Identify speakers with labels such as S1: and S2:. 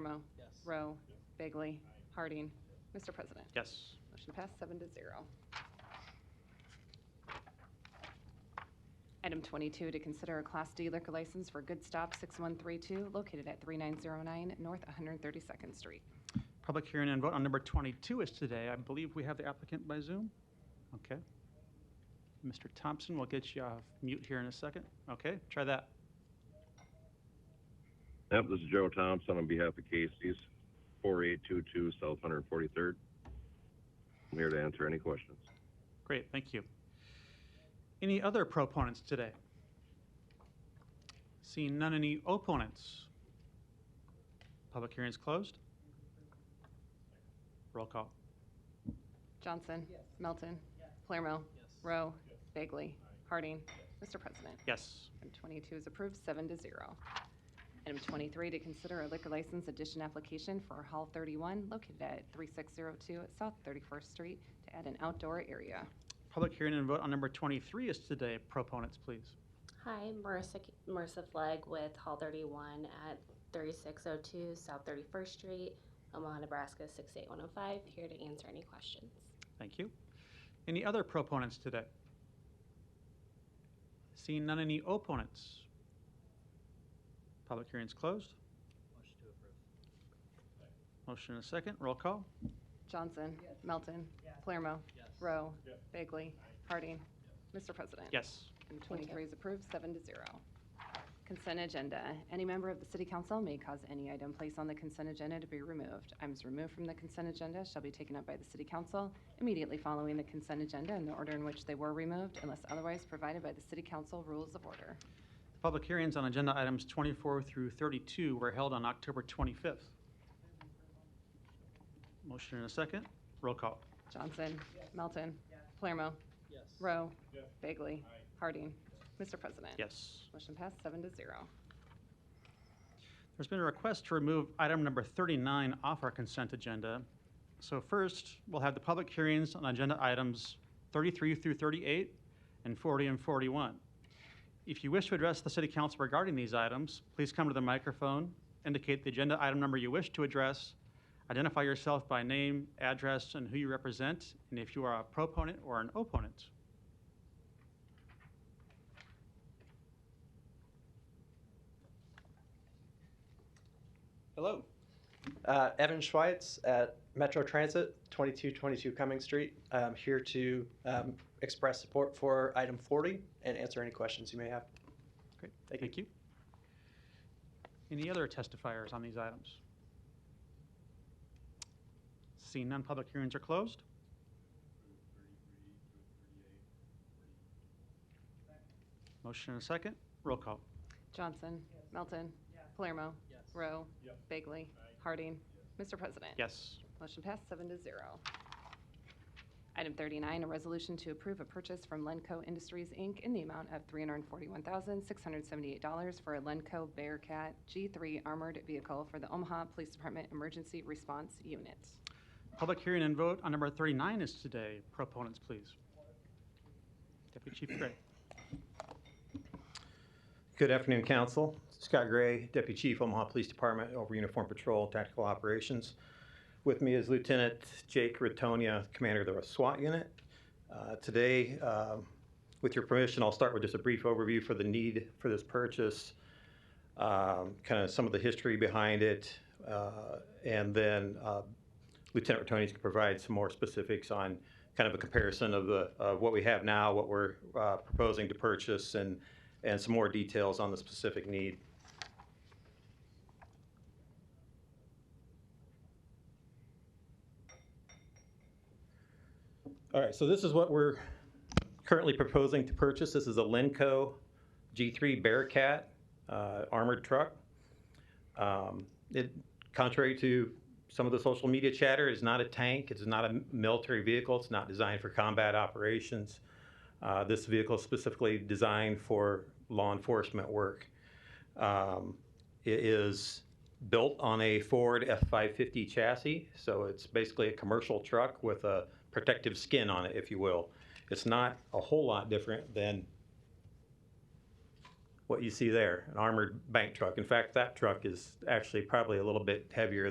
S1: Cordmo?
S2: Yes.
S1: Rowe? Bagley? Harding? Mr. President?
S3: Yes.
S1: Motion passed, seven to zero. Item 22, to consider a Class D liquor license for Good Stop 6132 located at 3909 North 132nd Street.
S3: Public hearing and vote on number 22 is today. I believe we have the applicant by Zoom? Okay. Mr. Thompson, we'll get you off mute here in a second. Okay, try that.
S4: Yep, this is Joe Thompson on behalf of Casey's, 4822 South 143rd. I'm here to answer any questions.
S3: Great, thank you. Any other proponents today? Seeing none, any opponents? Public hearing is closed. Roll call.
S1: Johnson? Melton? Palermo? Rowe? Bagley? Harding? Mr. President?
S3: Yes.
S1: Item 22 is approved, seven to zero. Item 23, to consider a liquor license addition application for Hall 31 located at 3602 South 31st Street to add an outdoor area.
S3: Public hearing and vote on number 23 is today. Proponents, please.
S5: Hi, Marissa, Marissa Flegg with Hall 31 at 3602 South 31st Street, Omaha, Nebraska 68105, here to answer any questions.
S3: Thank you. Any other proponents today? Seeing none, any opponents? Public hearing is closed.
S2: Motion to approve.
S3: Motion and a second. Roll call.
S1: Johnson. Melton. Palermo.
S2: Yes.
S1: Rowe. Bagley. Harding. Mr. President.
S3: Yes.
S1: Item 23 is approved, seven to zero. Consent agenda. Any member of the city council may cause any item placed on the consent agenda to be removed. Items removed from the consent agenda shall be taken up by the city council immediately following the consent agenda in the order in which they were removed unless otherwise provided by the city council rules of order.
S3: Public hearings on agenda items 24 through 32 were held on October 25th. Motion and a second. Roll call.
S1: Johnson. Melton. Palermo.
S2: Yes.
S1: Rowe. Bagley. Harding. Mr. President.
S3: Yes.
S1: Motion passed, seven to zero.
S3: There's been a request to remove item number 39 off our consent agenda. So first, we'll have the public hearings on agenda items 33 through 38 and 40 and 41. If you wish to address the city council regarding these items, please come to the microphone, indicate the agenda item number you wish to address, identify yourself by name, address, and who you represent, and if you are a proponent or an opponent.
S6: Hello. Uh, Evan Schweitz at Metro Transit, 2222 Cummings Street. I'm here to um, express support for item 40 and answer any questions you may have.
S3: Great,
S6: Thank you.
S3: thank you. Any other testifiers on these items? Seeing none, public hearings are closed. Motion and a second, roll call.
S1: Johnson. Melton. Palermo.
S2: Yes.
S1: Rowe. Bagley. Harding. Mr. President.
S3: Yes.
S1: Motion passed, seven to zero. Item 39, a resolution to approve a purchase from Lenco Industries, Inc. in the amount of $341,678 for a Lenco Bearcat G3 armored vehicle for the Omaha Police Department Emergency Response Unit.
S3: Public hearing and vote on number 39 is today. Proponents, please. Deputy Chief Gray.
S7: Good afternoon, Council. Scott Gray, Deputy Chief, Omaha Police Department, over Uniform Patrol, Tactical Operations. With me is Lieutenant Jake Ratonia, Commander of the SWAT Unit. Uh, Today, um, with your permission, I'll start with just a brief overview for the need for this purchase, um, kind of some of the history behind it, uh, and then uh, Lieutenant Ratonia can provide some more specifics on kind of a comparison of the, of what we have now, what we're uh, proposing to purchase, and and some more details on the specific need. All right, so this is what we're currently proposing to purchase. This is a Lenco G3 Bearcat uh, armored truck. Um, It, contrary to some of the social media chatter, is not a tank, it's not a military vehicle, it's not designed for combat operations. Uh, This vehicle is specifically designed for law enforcement work. Um, It is built on a Ford F-550 chassis, so it's basically a commercial truck with a protective skin on it, if you will. It's not a whole lot different than what you see there, an armored bank truck. In fact, that truck is actually probably a little bit heavier